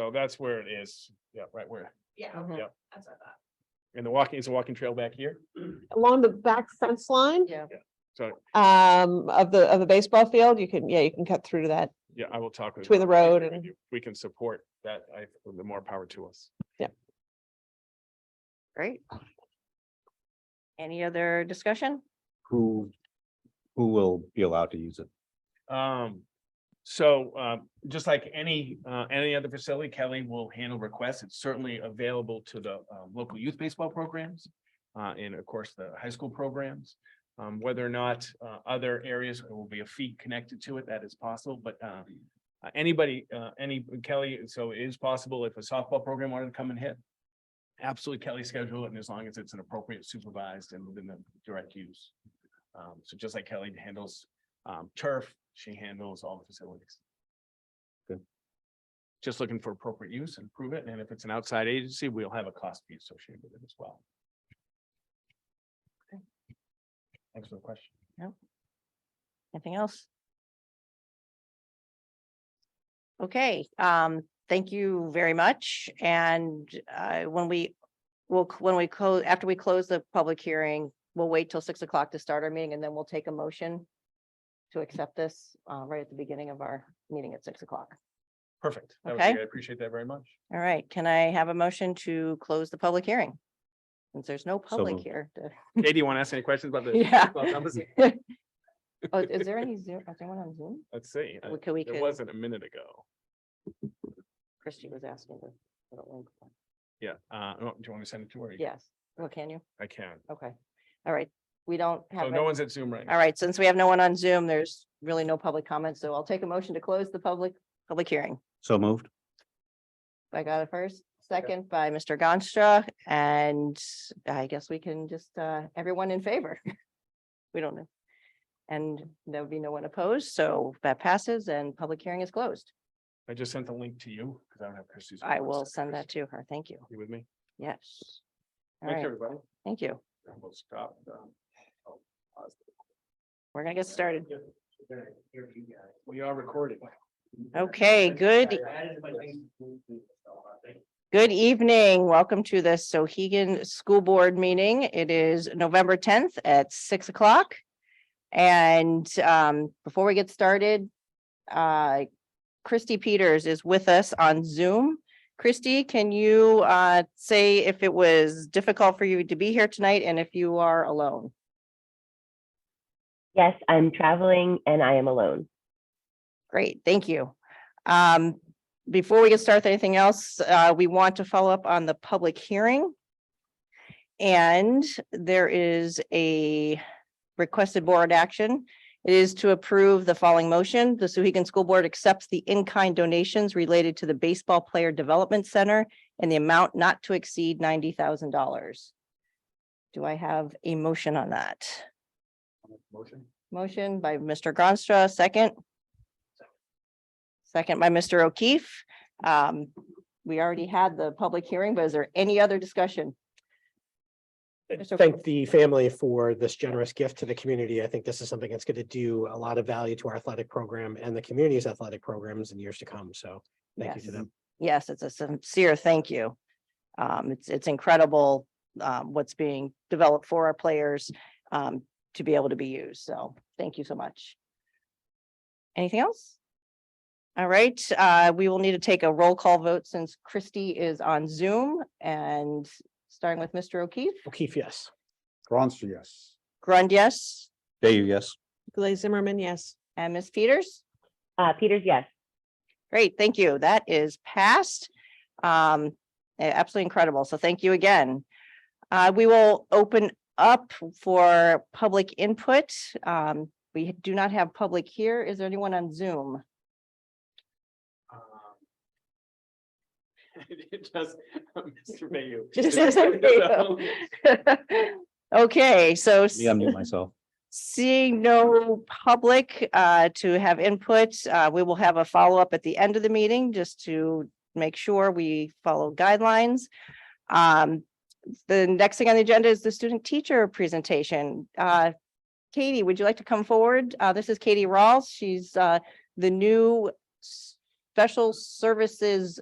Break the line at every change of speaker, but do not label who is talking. So that's where it is. Yeah, right where,
Yeah,
Mm-hmm.
Mhm.
Yep.
that's what I
and the walking, is a walking trail back here.
Along the back fence line,
Yeah.
So,
um, of the, of the baseball field, you can, yeah, you can cut through to that.
yeah, I will talk. with
Between the
Rob. I
road
agree with
and-
you. We can support that. I, the more power to us.
Great. Any other discussion?
who, who will be allowed to use it?
Um, so, um, just like any, uh, any other facility, Kelly will handle requests. It's certainly available to the, um, local youth baseball programs. Uh, and of course, the high school programs, um, whether or not, uh, other areas there will be a fee connected to it, that is possible, but, um. uh, Anybody, uh, any, Kelly, so it is possible if a softball program wanted to come and hit. Absolutely, Kelly schedule it, and as long as it's an appropriate supervised and within the direct use. Um, so just like Kelly handles um, turf, she handles all the facilities.
Good.
Just looking for appropriate use and prove it, and if it's an outside agency, we'll have a cost be associated with it as well. Thanks for the question.
Anything else? Okay, um, thank you very much. And uh, when we will, c- when we close, after we close the public hearing, we'll wait till six o'clock to start our meeting and then we'll take a motion to accept this uh, right at the beginning of our meeting at six o'clock.
Perfect. That was great.
Okay.
I appreciate that very much.
All right, can I have a motion to close the public hearing? Since there's no public
moved.
here. to-
Katie, you want to ask any questions about the?
Yeah.
baseball numbers?
Oh, is there any Zoom, is anyone on Zoom?
Let's see. uh,
We could, we
It
could,
wasn't a minute ago.
Christie was asking. to put a link on.
Yeah. Uh, oh, do you want me to send it to her?
Yes, well, can you?
I can.
Okay, all right, we don't
So
have,
no
any-
one's at Zoom right now.
all right, since we have no one on Zoom, there's really no public comment, so I'll take a motion to close the public, public hearing.
So moved?
I got it first, second by Mr. Gonstra, and I guess we can just, uh, everyone in favor. We don't know. And there would be no one opposed, so that passes and public hearing is closed.
I just sent the link to you because I don't have Christie's.
I
email.
will
So,
send that
Christie,
to her. Thank you.
You with me?
Yes. All
Thanks,
right,
everybody.
thank you.
We'll stop. um, I'll pause.
We're gonna get started.
We are recording.
Okay, good
uh,
Good evening. Welcome to the Sohegan School Board meeting. It is November tenth at six o'clock. And um, before we get started, uh, Christy Peters is with us on Zoom. Christy, can you uh, say if it was difficult for you to be here tonight and if you are alone?
Yes, I'm traveling and I am alone.
Great, thank you. Um, before we get started, with anything else, uh, we want to follow up on the public hearing. And there is a requested board action. It is to approve the following motion. The Suhegan School Board accepts the in-kind donations related to the Baseball Player Development Center and the amount not to exceed ninety thousand dollars. Do I have a motion on that?
Motion?
Motion by Mr. Gronstra, second. Second by Mr. O'Keefe. Um, we already had the public hearing, but is there any other discussion? Mr.
thank the family for this generous gift to the community. I think this is something that's going to do a lot of value to our athletic program and the community's athletic programs in years to come. So thank you
Yes.
to them.
Yes, it's a sincere thank you. Um, it's, it's incredible, um, what's being developed for our players, um, to be able to be used. So thank you so much. Anything else? All right, uh, we will need to take a roll call vote since Christy is on Zoom and starting with Mr. O'Keefe.
O'Keefe, yes.
Gronster, yes.
Grund, yes,
Dayu, yes.
Glaze Zimmerman, yes.
and Ms. Peters?
Uh, Peters, yes.
Great, thank you. That is passed. Um, a- absolutely incredible. So thank you again. Uh, we will open up for public input. Um, we do not have public here. Is there anyone on Zoom?
Um, Just, Mr. Bayou.
Just Mr. Bayou. Okay, so s-
Yeah, I'm mute myself.
seeing no public, uh, to have input, uh, we will have a follow-up at the end of the meeting just to make sure we follow guidelines. Um, the next thing on the agenda is the student teacher presentation. Uh, Katie, would you like to come forward? Uh, this is Katie Rawls. She's, uh, the new s- special services